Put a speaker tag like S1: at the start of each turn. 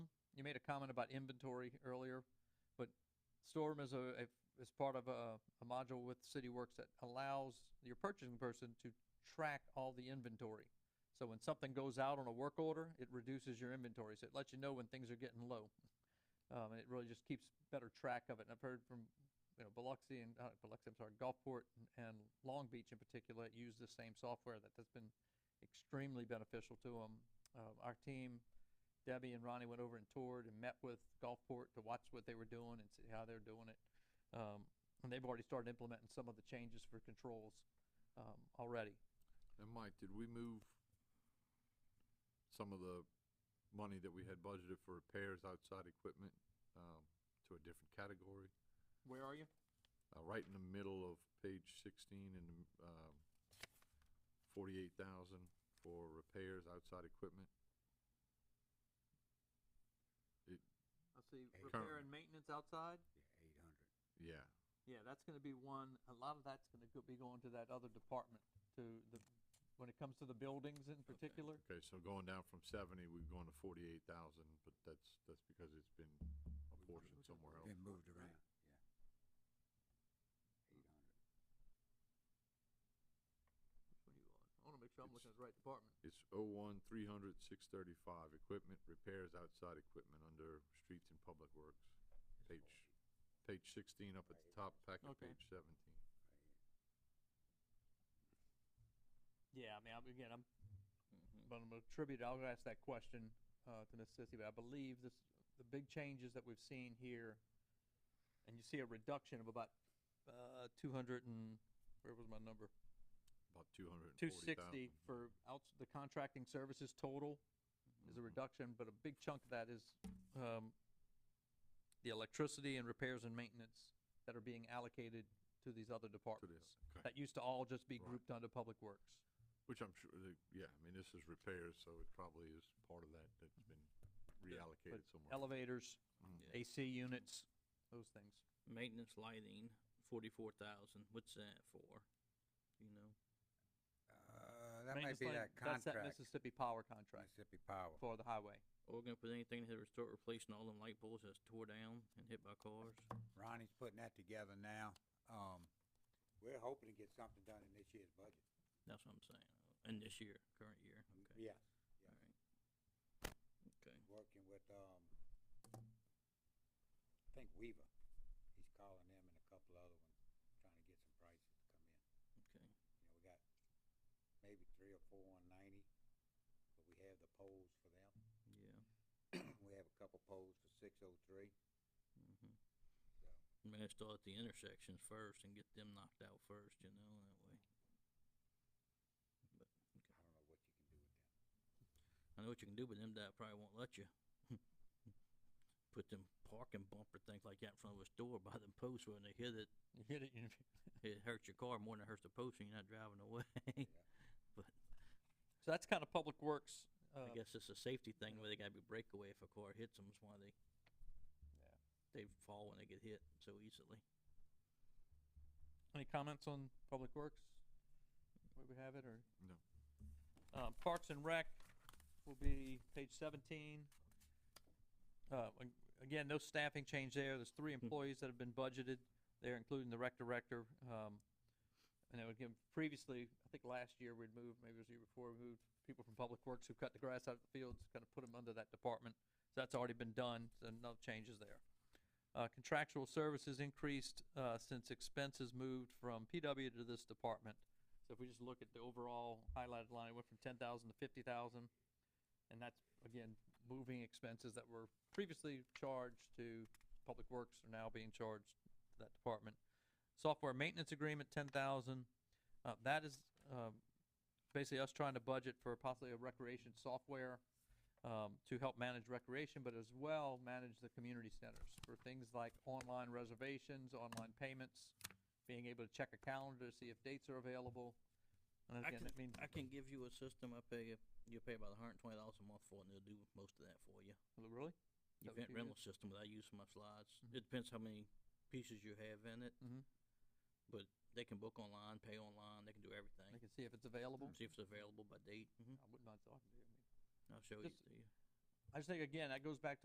S1: you made a comment about inventory earlier, but Storm is a, a is part of a, a module with CityWorks that allows your purchasing person to track all the inventory. So when something goes out on a work order, it reduces your inventory. So it lets you know when things are getting low. Um, and it really just keeps better track of it. And I've heard from, you know, Biloxi and, uh, Biloxi, I'm sorry, Gulfport and, and Long Beach in particular use the same software that has been extremely beneficial to them. Uh, our team, Debbie and Ronnie went over and toured and met with Gulfport to watch what they were doing and see how they're doing it. Um, and they've already started implementing some of the changes for controls um, already.
S2: And Mike, did we move some of the money that we had budgeted for repairs outside equipment, um, to a different category?
S3: Where are you?
S2: Uh, right in the middle of page sixteen and, um, forty-eight thousand for repairs outside equipment.
S3: I see
S4: Eight.
S3: repair and maintenance outside.
S4: Yeah, eight hundred.
S2: Yeah,
S1: Yeah, that's gonna be one, a lot of that's gonna go- be going to that other department, to the, when it comes to the buildings in particular.
S2: okay, so going down from seventy, we've gone to forty-eight thousand, but that's, that's because it's been apportioned somewhere else.
S4: Been moved around, yeah. Eight hundred.
S3: Which one are you on? I wanna make sure I'm
S2: It's-
S3: looking at the right department.
S2: It's oh one, three hundred, six thirty-five, equipment repairs outside equipment under streets and public works. Page, page sixteen up at the top, packet
S3: Okay.
S2: page seventeen.
S1: Yeah, I mean, I'm, again, I'm, but I'm gonna attribute, I'll ask that question, uh, to Miss Sissy, but I believe this, the big changes that we've seen here, and you see a reduction of about, uh, two hundred and, where was my number?
S2: About two hundred and
S1: Two
S2: forty
S1: sixty
S2: thousand.
S1: for outs, the contracting services total is a reduction, but a big chunk of that is, um, the electricity and repairs and maintenance that are being allocated to these other departments.
S2: Okay,
S1: That used to all just be
S2: Right.
S1: grouped under public works.
S2: which I'm sure, the- yeah, I mean, this is repairs, so it probably is part of that that's been reallocated somewhere.
S1: Elevators,
S2: Mhm.
S5: Yeah.
S1: AC units, those things.
S5: Maintenance lighting, forty-four thousand, what's that for? You know,
S4: Uh, that might
S1: Maintenance
S4: be
S1: line,
S4: that
S1: That's that
S4: contract,
S1: Mississippi Power contract
S4: Mississippi Power.
S1: for the highway.
S5: or we're gonna put anything here to start replacing all them light poles that's tore down and hit by cars?
S4: Ronnie's putting that together now. Um, we're hoping to get something done in this year's budget.
S5: That's what I'm saying, in this year, current year, okay,
S4: Yeah.
S5: alright. Okay,
S4: Working with, um, I think Weaver. He's calling them and a couple other ones, trying to get some prices to come in.
S5: okay,
S4: You know, we got maybe three or four on ninety, but we have the poles for them.
S5: yeah,
S4: We have a couple poles for six oh three.
S5: mhm. I'm gonna start at the intersections first and get them knocked out first, you know, that way. But,
S4: I don't know what you can do with them.
S5: I know what you can do, but them that probably won't let you. Put them parking bumper things like that in front of a store by them posts when they hit it,
S1: You hit it, you-
S5: it hurts your car more than it hurts the post and you're not driving away.
S1: so that's kind of public works.
S5: I
S1: uh,
S5: guess it's a safety thing where they gotta be breakaway if a car hits them, is why they, they fall when they get hit so easily.
S1: Any comments on Public Works? Where we have it, or?
S2: No.
S1: Um, Parks and Rec will be page seventeen. Uh, ag- again, no staffing change there, there's three employees that have been budgeted there, including the rec director, um. And then again, previously, I think last year we'd moved, maybe it was the year before, we moved people from Public Works who cut the grass out of the fields, kind of put them under that department. So that's already been done, so no changes there. Uh, contractual services increased, uh, since expenses moved from PW to this department. So if we just look at the overall highlighted line, it went from ten thousand to fifty thousand. And that's, again, moving expenses that were previously charged to Public Works are now being charged to that department. Software maintenance agreement, ten thousand. Uh, that is, um, basically us trying to budget for possibly a recreation software um, to help manage recreation, but as well manage the community centers for things like online reservations, online payments, being able to check a calendar to see if dates are available. And
S5: I
S1: again,
S5: can-
S1: that means
S5: I can give you a system, I pay you, you pay about a hundred and twenty dollars a month for it and they'll do most of that for you.
S1: Really? That would
S5: event
S1: be good.
S5: rental system that I use for my slides.
S1: Mhm.
S5: It depends how many pieces you have in it.
S1: Mhm.
S5: But they can book online, pay online, they can
S1: They
S5: do everything.
S1: can see if it's available.
S5: See if it's available by date. Mhm.
S1: I wouldn't mind talking to you. I mean,
S5: I'll show it
S1: Just-
S5: to you.
S1: I just think, again, that goes back to